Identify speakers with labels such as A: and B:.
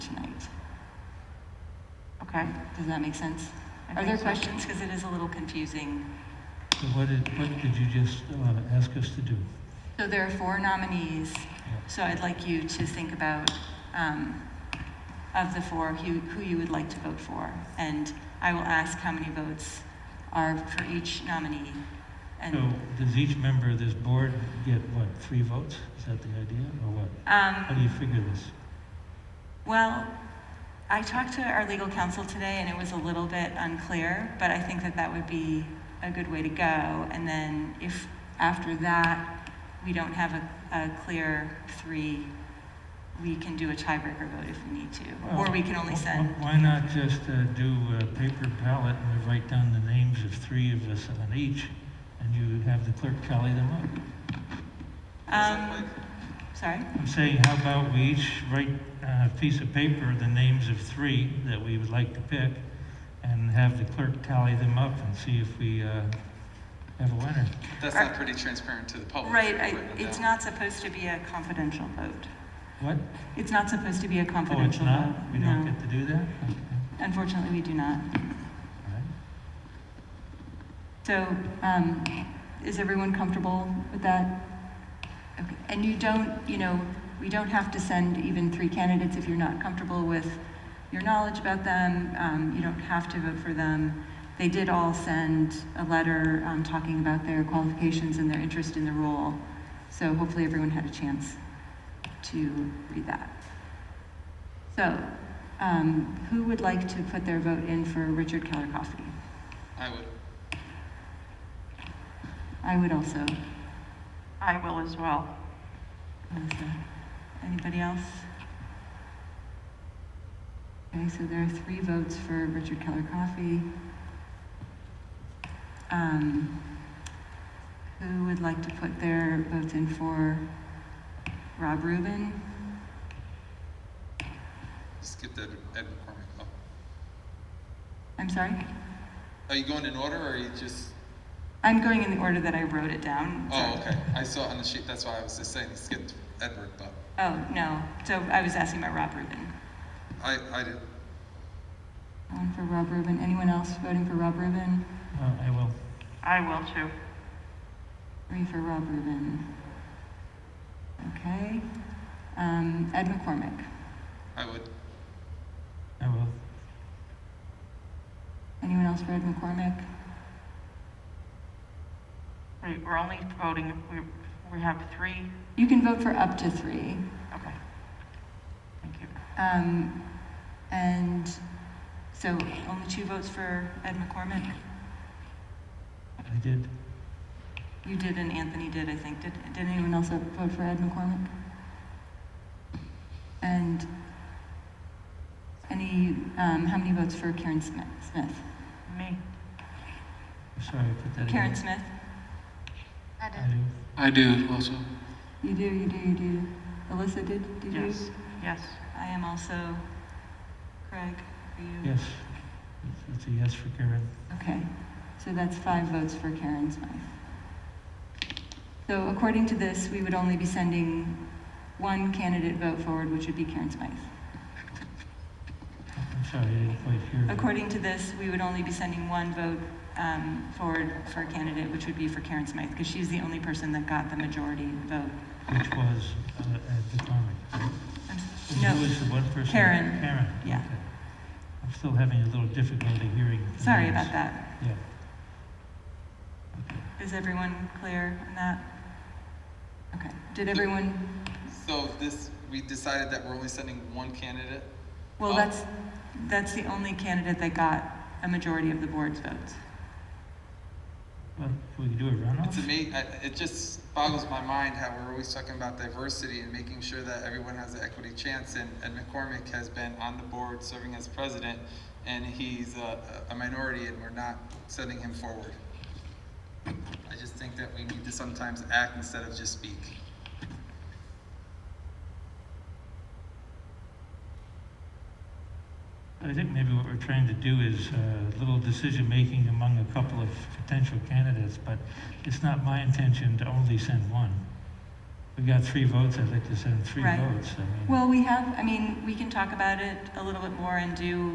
A: Okay, does that make sense?
B: I
A: Are
B: think
A: there
B: so.
A: questions? Because it is a little confusing.
C: So what did, what did you just uh, ask us to do?
A: So there are four nominees, so I'd like you to think about, um, of the four, who, who you would like to vote for. And I will ask how many votes are for each nominee.
C: So
A: And,
C: does each member of this board get, what, three votes? Is that the idea, or what? How do
A: um,
C: you figure this?
A: well, I talked to our legal counsel today and it was a little bit unclear, but I think that that would be a good way to go. And then if after that, we don't have a, a clear three, we can do a tiebreaker vote if we need to. Or we can only
C: Well,
A: send.
C: Why not just uh, do a paper ballot and we write down the names of three of us on each, and you have the clerk tally them up?
A: Um, sorry?
C: I'm saying, how about we each write on a piece of paper the names of three that we would like to pick, and have the clerk tally them up and see if we uh, have a winner?
D: That's
A: Are-
D: not pretty transparent to the public.
A: Right, I,
D: Wait,
A: it's
D: no.
A: not supposed to be a confidential vote.
C: What?
A: It's not supposed to be a
C: Oh, it's
A: confidential vote.
C: not? We don't
A: No.
C: get to do that? Okay.
A: Unfortunately, we do not.
C: All right.
A: So, um, is everyone comfortable with that? Okay. And you don't, you know, we don't have to send even three candidates if you're not comfortable with your knowledge about them. Um, you don't have to vote for them. They did all send a letter, um, talking about their qualifications and their interest in the role. So hopefully everyone had a chance to read that. So, um, who would like to put their vote in for Richard Keller Coffey?
D: I would.
A: I would also.
B: I will as well.
A: Melissa. Anybody else? Okay, so there are three votes for Richard Keller Coffey. Um, who would like to put their votes in for Rob Rubin?
D: Skip that Ed McCormick. Oh.
A: I'm sorry?
D: Are you going in order or are you just?
A: I'm going in the order that I wrote it down.
D: Oh, okay. I saw it on the sheet. That's why I was just saying skip Edward, but
A: Oh, no. So I was asking about Rob Rubin.
D: I, I did.
A: One for Rob Rubin. Anyone else voting for Rob Rubin?
C: Well, I will.
B: I will too.
A: Three for Rob Rubin. Okay. Um, Ed McCormick.
D: I would.
C: I will.
A: Anyone else for Ed McCormick?
B: We- We're only voting, if we, we have three,
A: You can vote for up to three.
B: okay. Thank you.
A: Um, and so only two votes for Ed McCormick.
C: I did.
A: You did and Anthony did, I think. Did, did anyone else vote for Ed McCormick? And any, um, how many votes for Karen Smith? Smith?
B: Me,
C: I'm sorry, I put that in.
A: Karen Smith?
C: I do.
E: I do also.
A: You do, you do, you do. Alyssa did? Did you?
B: yes, yes.
A: I am also Craig. Are you?
C: Yes. It's a yes for Karen.
A: Okay, so that's five votes for Karen Smythe. So according to this, we would only be sending one candidate vote forward, which would be Karen Smythe.
C: Mm-hmm. I'm sorry, I didn't quite hear. that.
A: According to this, we would only be sending one vote um, forward for a candidate, which would be for Karen Smythe, because she's the only person that got the majority vote.
C: Which was uh, Ed McCormick.
A: I'm s-
C: Who
A: No,
C: was the one person?
A: Karen.
C: Karen.
A: Yeah.
C: okay. I'm still having a little difficulty hearing. the
A: sorry
C: names.
A: about that.
C: Yeah.
A: Is everyone clear on that? Okay, did everyone?
D: So if this, we decided that we're only sending one candidate.
A: Well,
D: Oh.
A: that's, that's the only candidate that got a majority of the board's votes.
C: Well, can we do a runoff?
D: It's amazing. It just boggles my mind how we're always talking about diversity and making sure that everyone has an equity chance. And Ed McCormick has been on the board serving as president, and he's a, a minority, and we're not sending him forward. I just think that we need to sometimes act instead of just speak.
C: I think maybe what we're trying to do is uh, a little decision-making among a couple of potential candidates, but it's not my intention to only send one. We got three votes, I'd like to send three
A: Right.
C: votes. I mean-
A: Well, we have, I mean, we can talk about it a little bit more and do